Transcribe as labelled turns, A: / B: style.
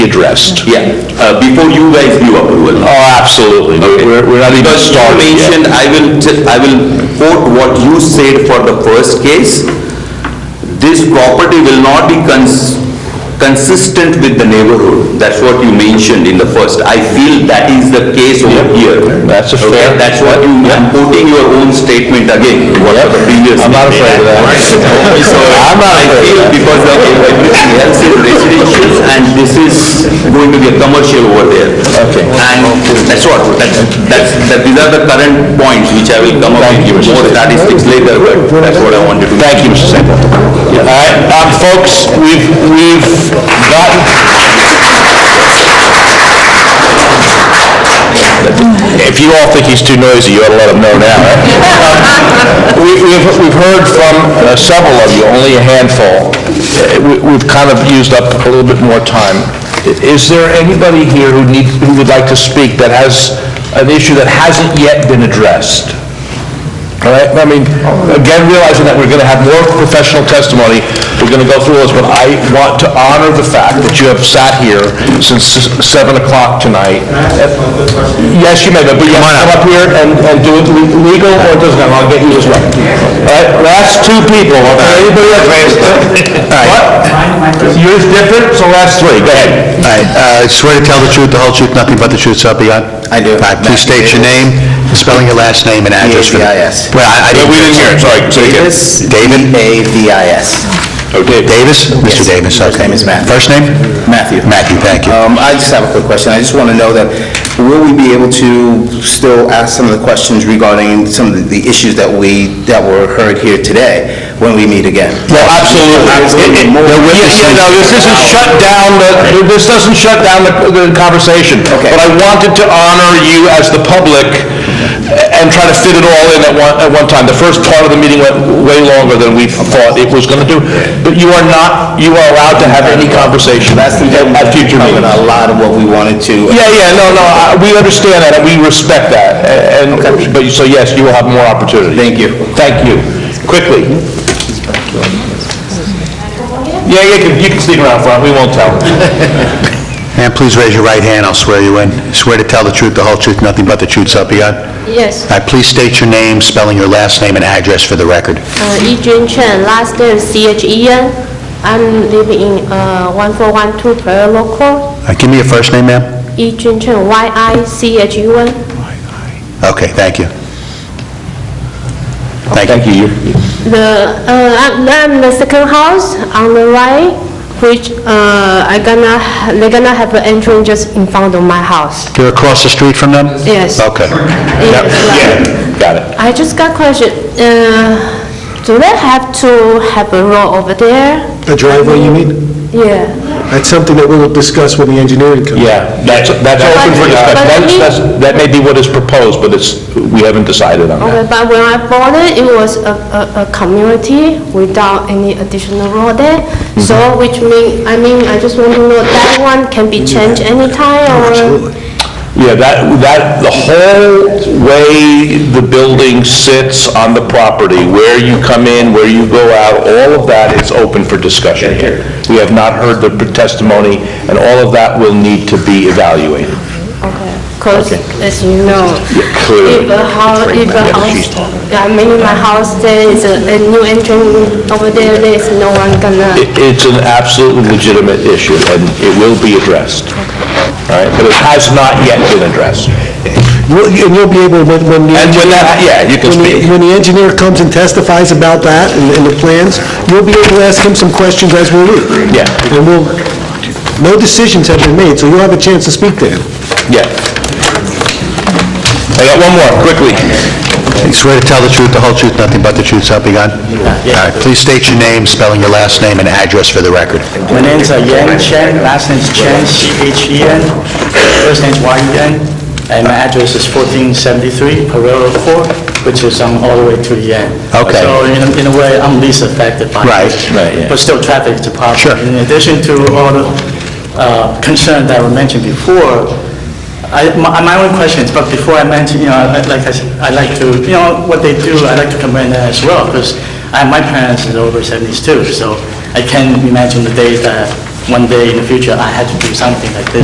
A: addressed.
B: Yeah, uh, before you guys knew approval.
A: Oh, absolutely.
B: Okay.
A: We're, we're not even
B: Because you
A: started
B: mentioned,
A: yet.
B: I will, t- I will quote what you said for the first case. This property will not be cons- consistent with the neighborhood. That's what you mentioned in the first. I feel that is the case over here.
A: That's a
B: Okay,
A: fair-
B: That's what you, I'm quoting your own statement again, what the previous.
A: I'm not afraid of that.
B: So,
A: I'm not
B: I
A: afraid of
B: feel
A: that.
B: because of everything else is residential and this is going to be a commercial over there.
A: Okay.
B: And that's what, that's, that's, that these are the current points which I will come up
A: Thank you,
B: with
A: Mr.
B: more statistics later, but that's what I wanted to.
A: Thank you, Mr. Sample. All right, um, folks, we've, we've gotten... If you all think he's too noisy, you ought to let him know now, right? Um, we- We've, we've heard from uh, several of you, only a handful. Uh, we- We've kind of used up a little bit more time. I- Is there anybody here who needs, who would like to speak that has an issue that hasn't yet been addressed? All right, I mean, again, realizing that we're going to have more professional testimony, we're going to go through this, but I want to honor the fact that you have sat here since s- 7 o'clock tonight. Yes, you may, but you have to come up here and, and do it le- legal or it doesn't matter, I'll get you as well. All right, last two people, okay, anybody else? What? Yours different, so last three, go ahead.
C: All right, uh, swear to tell the truth, the whole truth, nothing but the truth, so help you God? I do. Please state your name, spelling your last name and address. for the-
D: D-A-V-I-S.
C: Well, I I didn't...
A: We didn't hear it, sorry, say it again.
D: Davis.
C: David?
D: D-A-V-I-S.
A: Oh, Dave.
C: Davis? Mr.
D: Yes.
C: Davis, okay.
D: First name is Matthew.
C: First name?
D: Matthew.
C: Matthew, thank you.
D: Um, I just have a quick question. I just want to know that, will we be able to still ask some of the questions regarding some of the issues that we, that were heard here today when we meet again?
A: No, absolutely. It- it-
D: More-
A: Yeah, yeah, no, this doesn't
D: Oh.
A: shut down, the- this doesn't shut down the the conversation.
D: Okay.
A: But I wanted to honor you as the public and try to fit it all in at one, at one time. The first part of the meeting went way longer than we thought it was going to do. But you are not, you are allowed to have any conversation at
D: That's the,
A: at future
D: covering
A: meetings.
D: a lot of what we wanted to.
A: Yeah, yeah, no, no, I- we understand that, and we respect that, and, but, so yes, you will have more opportunity. Thank you. Thank you. Quickly. Yeah, you can, you can stick around front, we won't tell.
C: And please raise your right hand, I'll swear you in. Swear to tell the truth, the whole truth, nothing but the truth, so help you God?
E: Yes,
C: All right, please state your name, spelling your last name and address for the record.
E: uh, Yijun Chen, last name C-H-E-N. I'm living in uh, 1412 Prairie Local.
C: All right, Give me your first name, ma'am.
E: Yijun Chen, Y-I-C-H-U-N.
C: Okay, thank you.
A: Thank you.
E: The, uh, I'm I'm the second house on the right, which uh, I gonna, ha- they gonna have an entrance just in front of my house.
C: You're across the street from them?
E: Yes.
C: Okay.
E: Yes, like-
A: Got it.
E: I just got question, uh, do they have to have a road over there?
F: A driveway, you mean?
E: Yeah.
F: That's something that we'll discuss when the engineering comes.
A: Yeah, that's, that's open for discussion.
E: But-
A: That's- that's- That may be what is proposed, but it's, we haven't decided on
E: Okay,
A: that.
E: but when I bought it, it was a, a, a community without any additional road there. So which mean, I mean, I just want to know that one can be changed anytime or?
A: Yeah, that, that, the whole way the building sits on the property, where you come in, where you go out, all of that is open for discussion here. We have not heard the testimony, and all of that will need to be evaluated.
E: Okay. Cause as you know,
A: clearly.
E: if a house, if a house, I mean, my house, there is a, a new entrance over there, there's no one gonna.
A: It- It's an absolutely legitimate issue, and it will be addressed. All right, but it has not yet been addressed.
F: You'll- And you'll be able, when, when the...
A: And when that, yeah, you can
F: when the-
A: speak.
F: When the engineer comes and testifies about that and and the plans, you'll be able to ask him some questions as we leave.
A: Yeah.
F: And we'll, no decisions have been made, so you'll have a chance to speak to him.
A: Yeah. I got one more, quickly.
C: You Swear to tell the truth, the whole truth, nothing but the truth, so help you God? All right, please state your name, spelling your last name and address for the record.
G: My name's uh, Yan Chen, last name's Chen, C-H-E-N, first name's Y-U-N, and my address is 1473 Pereira Court, which is um, all the way to the end.
C: Okay.
G: So in a- in a way, I'm least affected by it.
C: Right,
A: right, yeah.
G: But still, traffic is a problem.
C: Sure.
G: In addition to all the uh, concerns that were mentioned before, I, my my own questions, but before I mention, you know, I- like I said, I like to, you know, what they do, I like to commend that as well, because my parents is over 70s too, so I can imagine the days that one day in the future, I had to do something like this.